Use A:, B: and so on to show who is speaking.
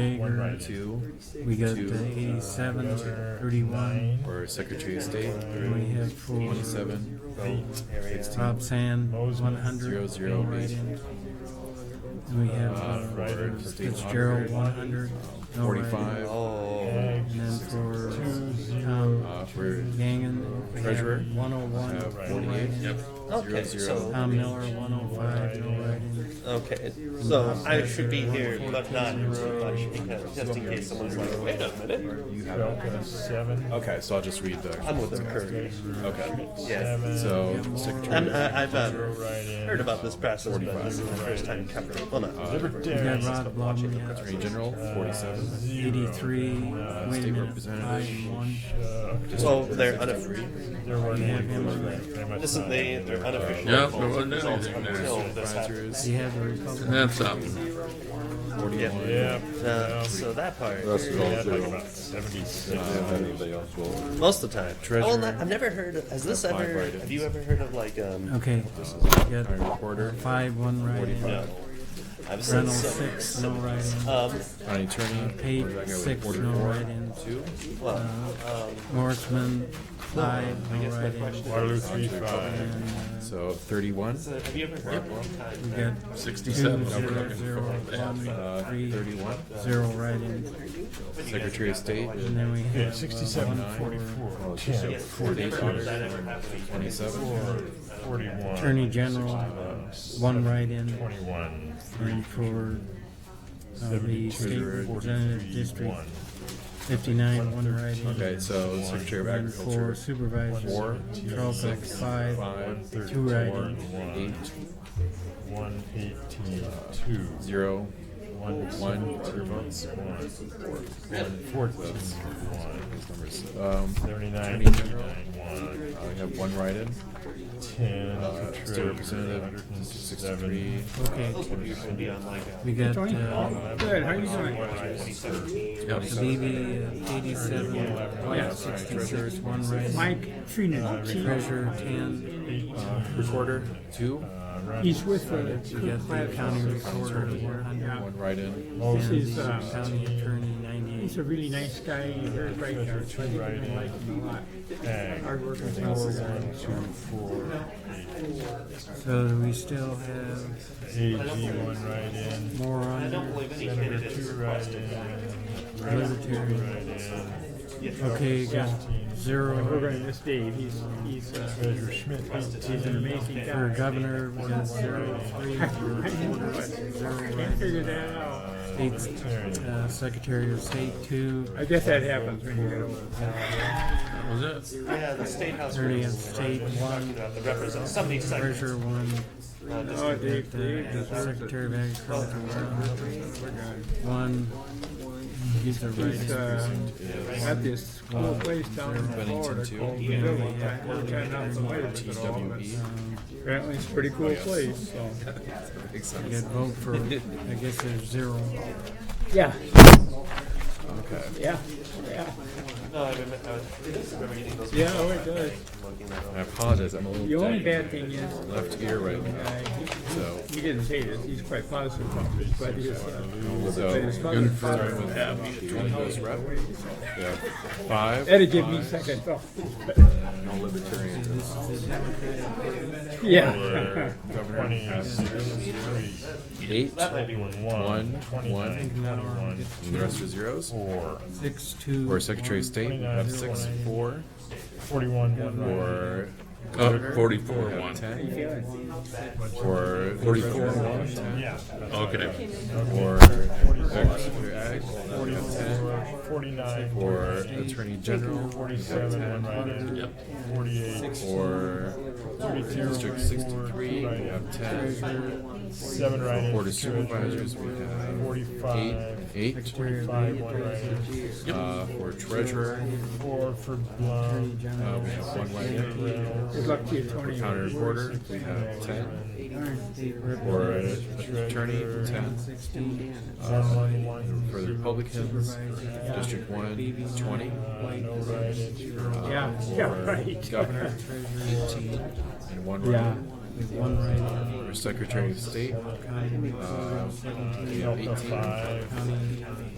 A: Jager,
B: two,
A: we got
B: Two,
A: the
B: uh,
A: 87,
B: another
A: 31.
B: or Secretary of State,
A: We have for
B: 27,
A: Rob Sand,
C: Moses.
A: 100.
B: Zero, zero,
A: going right
B: eight.
A: in. And we have
B: Uh,
A: uh,
B: Ryder, Um,
A: Fitzgerald,
B: 1500.
A: 100. going right in.
B: 45.
D: Oh.
C: Ag,
A: And then for
C: Two, zero.
A: Tom
B: Uh, for
A: Gangan, we have
B: Treasurer,
A: 101.
B: uh,
A: going right
B: 48.
A: in.
D: Okay,
B: Zero,
D: so-
B: zero.
A: Tom Miller, 105. No right in.
D: Okay, so I should be here, but not too much because just in case someone's like, wait a minute,
C: Belka, seven.
B: Okay, so I'll just read the.
D: I'm with the current.
B: Okay.
D: Yeah,
B: So
A: Yeah,
B: Secretary,
D: I'm, I, I've um, heard
C: Heard
D: about this process, but this is my first time covering. it. Well, not
B: Uh,
C: Libertarian.
A: We got Rod
D: watching the
A: Blomley,
B: Attorney General,
D: Uh,
B: forty-seven.
A: 83. Wait a
B: Uh, State
A: minute.
B: Representative.
A: 5 and 1.
D: Well, they're unofficial.
C: There were
A: Yeah, yeah.
D: Uh, This is they. They're
B: Uh,
D: unofficial.
E: Yeah,
D: voting
E: there wasn't
D: results
E: anything there.
D: until this happens.
B: Advisors,
A: You have the Republican.
E: That's up.
B: forty-one.
C: Yeah.
D: Uh, so that part,
F: That's it all
C: Yeah, like
F: zero.
C: about seventy-six.
F: Didn't
B: Uh,
F: have anybody else vote.
D: most of the time.
B: Treasurer.
D: Oh, and I've never heard. Has this
B: Applied
D: ever?
B: right in.
D: Have you ever heard of like um?
A: Okay. We
B: Iron
A: got
B: reporter,
A: 5 1 right in.
D: No. I've said
A: Reynolds
D: so.
A: 6. No right in.
D: Um,
B: county attorney. Where did Uh, I
A: Pate,
B: go?
A: six, no
B: 44.
A: write-ins.
B: Two.
D: well,
A: Uh, Morrisman, five, no uh, write-ins.
C: Waterloo three five.
B: So
D: um,
B: thirty-one.
D: have you ever heard of one time?
A: We got two, zero,
E: 67.
A: zero,
B: Uh,
A: one, three,
B: thirty-one.
A: zero write-ins.
B: Secretary of State.
A: And then we
C: Yeah,
A: have
C: sixty-seven,
A: uh, one
B: Oh,
C: forty-four, ten,
B: Forty-eight. Twenty-seven.
C: forty-one.
A: for Attorney General, one write-in,
C: Twenty-one,
A: and for uh, the State
C: seventy-two,
A: Representative
C: forty-three,
A: District
C: one.
A: fifty-nine, one write-in.
B: Okay, so Secretary of
A: And for
B: Agriculture.
A: Supervisor,
B: Four.
A: Trolbeck,
B: Six.
A: five,
B: Five.
A: two write-ins.
B: Eight.
C: One, one eighteen, two.
B: Zero.
C: One,
B: One. Two votes.
C: One fourteen, one.
B: Um,
C: Thirty-nine,
B: Attorney General.
C: thirty-nine, one.
B: I have one write-in.
C: Ten,
B: Uh, State
C: Treasurer,
B: Representative,
C: hundred and
B: sixty-three.
C: seven.
A: Okay, we got, uh,
G: Good, how are you
A: Habibi,
G: doing?
A: uh, eighty-seven, White, sixty-six, one right-in.
G: Mike Trina,
A: Treasurer, ten.
B: Recorder, two.
C: Uh,
G: he's with uh, the
A: You got the county recorder, one hundred.
B: One write-in.
A: And
G: This is,
A: the
G: uh,
A: county attorney,
G: He's
A: ninety-eight.
G: a really nice guy, he's very bright, I think you're gonna like him a lot.
C: Ag,
G: Hardworking fellow.
C: one, two, four, eight.
A: So we still have
C: AG, one write-in.
A: more on
C: Senator, two write-in. Rep, two
A: Libertarian.
C: write-in.
A: there. Okay, you got
G: We're
A: zero.
G: gonna miss Dave, he's, he's, uh,
C: Treasurer Schmidt,
G: he's an
C: eighteen.
G: amazing
A: For
G: guy.
A: governor, we got zero, three,
G: I didn't know it. Can't figure that out.
A: eight, uh, secretary of state, two,
G: I guess that happens when you get older.
E: Was it?
D: Yeah, the state house.
A: attorney of
D: rules.
A: state,
D: Talking
A: one,
D: about the represent somebody second.
A: treasurer, one,
D: Uh, just
G: Oh, Dave, Dave
A: the
G: deserves it.
A: secretary of agriculture, one, one. He's a
G: He's,
A: right.
G: uh, at this cool place down in Florida called the Village. I never got out of the way of it all, but
B: TWE.
G: Apparently it's a pretty cool place, so.
A: I got vote for, I guess there's zero.
G: Yeah. Okay. Yeah, yeah,
D: No, I remember, I was- remember getting those.
G: yeah, oh, it does.
D: Looking at
B: I apologize, I'm a little.
G: The only
B: dead.
G: bad thing is,
B: Left ear right now,
G: uh,
B: so.
G: he didn't say this, he's quite positive about this, but his, uh,
B: So,
G: but his
B: good
G: mother
B: for starting with
G: father,
B: Twenty goes rep. Yeah. Five.
G: that'd give me second thought.
B: No libertarians.
G: Yeah.
B: Eight.
C: One,
B: one. And the rest are zeros.
C: four,
A: Six, two.
B: Or Secretary of State,
C: Twenty-nine,
B: have
C: zero,
B: six,
C: one.
B: four,
C: forty-one, one write-in.
B: or
E: Uh, 44
B: have
E: 1.
B: ten, or
E: 44.
B: have ten,
C: Yeah.
E: Okay.
B: or Secretary of Ag, have ten,
C: Forty-four, forty-nine,
B: or Attorney General, have
C: forty-seven, one
B: ten,
C: write-in. Forty-eight,
B: or District sixty-three, we have ten,
C: seven write-ins.
B: Board of Supervisors, we have eight,
C: Forty-five,
B: eight,
C: five, one write-in.
B: uh, for Treasurer,
C: Four for Blum.
B: uh, we have one write-in,
G: Good luck to you, Tony.
B: County Recorder, we have ten, or
A: Or
B: Attorney, ten,
A: sixteen.
B: for the Republicans, District one, twenty,
A: Uh,
C: No write-in.
G: Yeah, yeah, right.
B: Governor, Uh, eighteen, and one
G: Yeah.
B: write-in.
A: One right,
B: For Secretary of State, uh, we have
C: Delta
B: eighteen.
C: five.
A: county,